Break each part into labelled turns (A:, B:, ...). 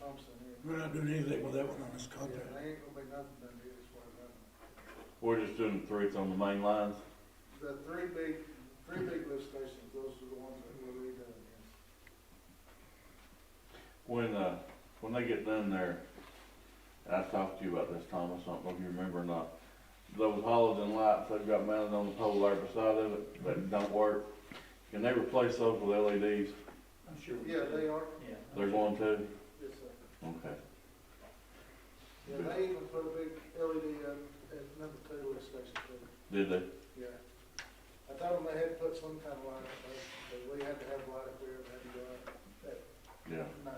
A: Thompson here.
B: We're not doing anything with that one on this
A: Yeah,
B: contract.
A: There ain't gonna be nothing done here as far as I know.
C: We're just doing threes on the main lines.
A: The three big, three big lift stations, those are the ones that were redone.
C: When, uh, when they get done there, and I talked to you about this, Thomas, I don't know if you remember or not. Those halogen lights they've got mounted on the pole there beside of it that don't work, can they replace those with LEDs?
D: I'm sure we
A: Yeah,
D: did.
A: they are,
D: Yeah.
C: They're going to?
A: yes, sir.
C: Okay.
A: Yeah, they even put a big LED up at number two lift station too.
C: Did they?
A: Yeah. I told them they had to put some kind of light up there, but we had to have light up there, and had to go up at
C: Yeah,
A: night.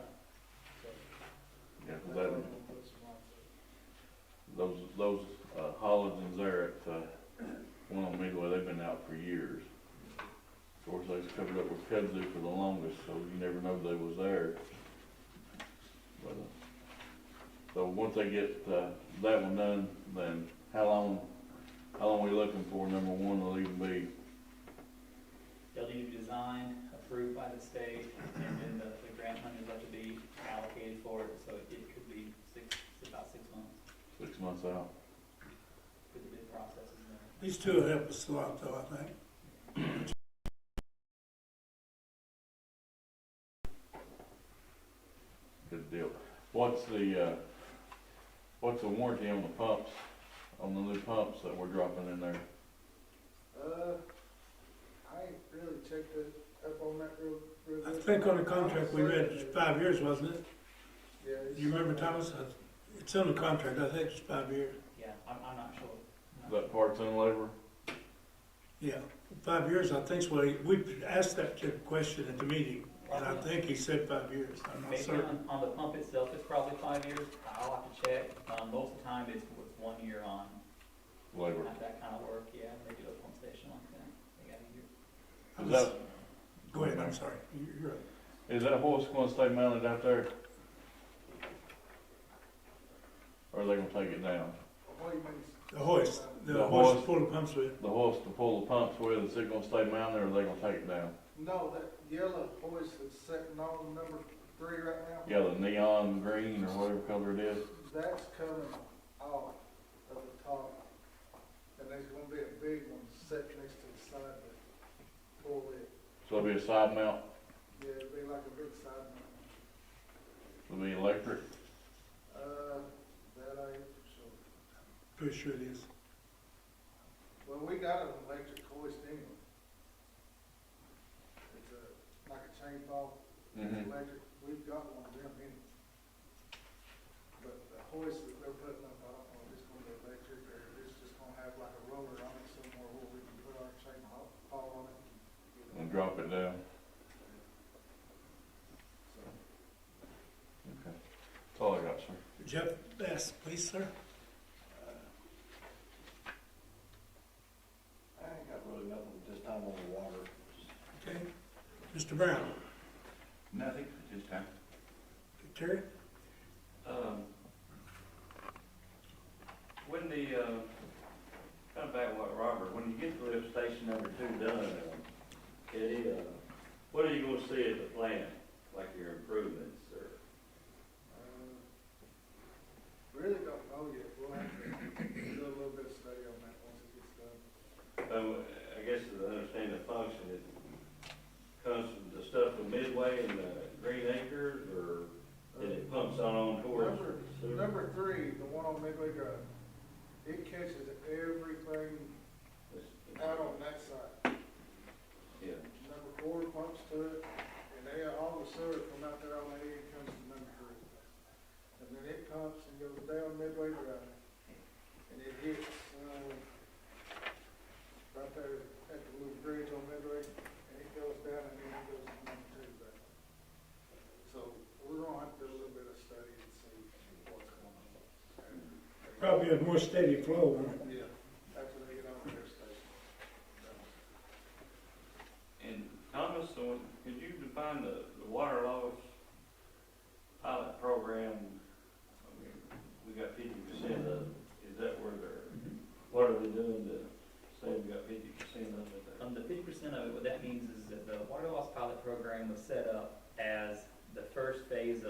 A: So,
C: yeah, 'cause
A: they
C: that,
A: told them to put some lights up.
C: those, those, uh, halogens there at, uh, one on Midway, they've been out for years. Of course, they was covered up with kudzu for the longest, so you never know they was there. But, uh, so once they get, uh, that one done, then how long, how long we looking for, number one, will even be,
D: They'll need to be designed, approved by the state, and then the, the grant money will have to be allocated for it, so it could be six, about six months
C: six months out?
D: for the bid process. is there.
B: These two will help us a lot though, I think.
C: Good deal. What's the, uh, what's the warranty on the pumps, on the new pumps that we're dropping in there?
A: Uh, I ain't really checked it up on that real, real
B: I
A: good.
B: think on the contract we read,
A: Yeah,
B: it's five years, wasn't it?
A: it's-
B: You remember, Thomas? It's on the contract, I think it's five years.
D: Yeah, I'm, I'm not sure. I'm not
C: That parts and labor?
B: Yeah, five years, I think, well, we asked that question at the meeting, and I think he said five years, I'm not
D: Maybe
B: certain.
D: on, on the pump itself, it's probably five years, I'll have to check, um, most of the time it's, it's one year on,
C: Labor.
D: not that kind of work, yeah, they do a pump station like that, they got a year.
B: I
C: Is
B: was-
C: that,
B: Go ahead, I'm sorry, You're- you're right.
C: is that horse gonna stay mounted out there? Or are they gonna take it down?
A: What do you mean?
B: The hoist, the
C: The
B: hoist
C: hoist.
B: full of pumps with,
C: The horse to pull the pumps with, is it gonna stay mounted or are they gonna take it down?
A: No, that yellow hoist that's sitting on number three right now.
C: Yeah, the neon green or whatever color it is.
A: That's coming off of the top. And there's gonna be a big one set next to the side of it. Pull it,
C: So it'll be a side mount,
A: yeah, it'd be like a big side mount.
C: it'll be electric.
A: Uh, that I ain't for sure.
B: pretty sure it is.
A: Well, we got an electric hoist anyway. It's a, like a chain ball, it's
C: Mm-hmm.
A: electric, we've got one of them in. But the hoist that they're putting up, I don't know if it's gonna be electric or if it's just gonna have like a roller on it somewhere where we can put our chain ball, ball on it.
C: And drop it down.
A: So,
C: Okay. That's all I got, sir.
B: Jeff Bass, please, sir.
E: I ain't got really nothing this time on the water.
B: Okay. Mr. Brown,
E: Nothing at this time.
B: Terry?
F: Um, When the, uh, kind of back to what Robert, when you get the lift station number two done, um, it, uh, what are you gonna see at the plant, like your improvements or?
A: uh, Really don't know yet, we'll have to do a little bit of study on that once it gets done.
F: Um, I guess to understand the function, it comes from the stuff from Midway and the Green Acres or and it pumps on towards?
A: Number, number three, the one on Midway Drive, it catches everything out on that side.
F: Yeah.
A: Number four pumps to it, and they, all the sewer from out there on that end comes to number three. And then it pumps and goes down Midway Drive, and it hits, um, right there at the little bridge on Midway, and it goes down and then it goes to number two back. So we're gonna have to do a little bit of study and see what's going on.
B: Probably a more steady flow on it.
A: Yeah, after they get on their station.
F: And Thomas, so could you define the, the water loss pilot program? I mean, We got fifty percent of, is that where they're,
D: Mm-hmm.
F: what are they doing to say we got fifty percent of it?
D: Um, the fifty percent of it, what that means is that the water loss pilot program was set up as the first phase of.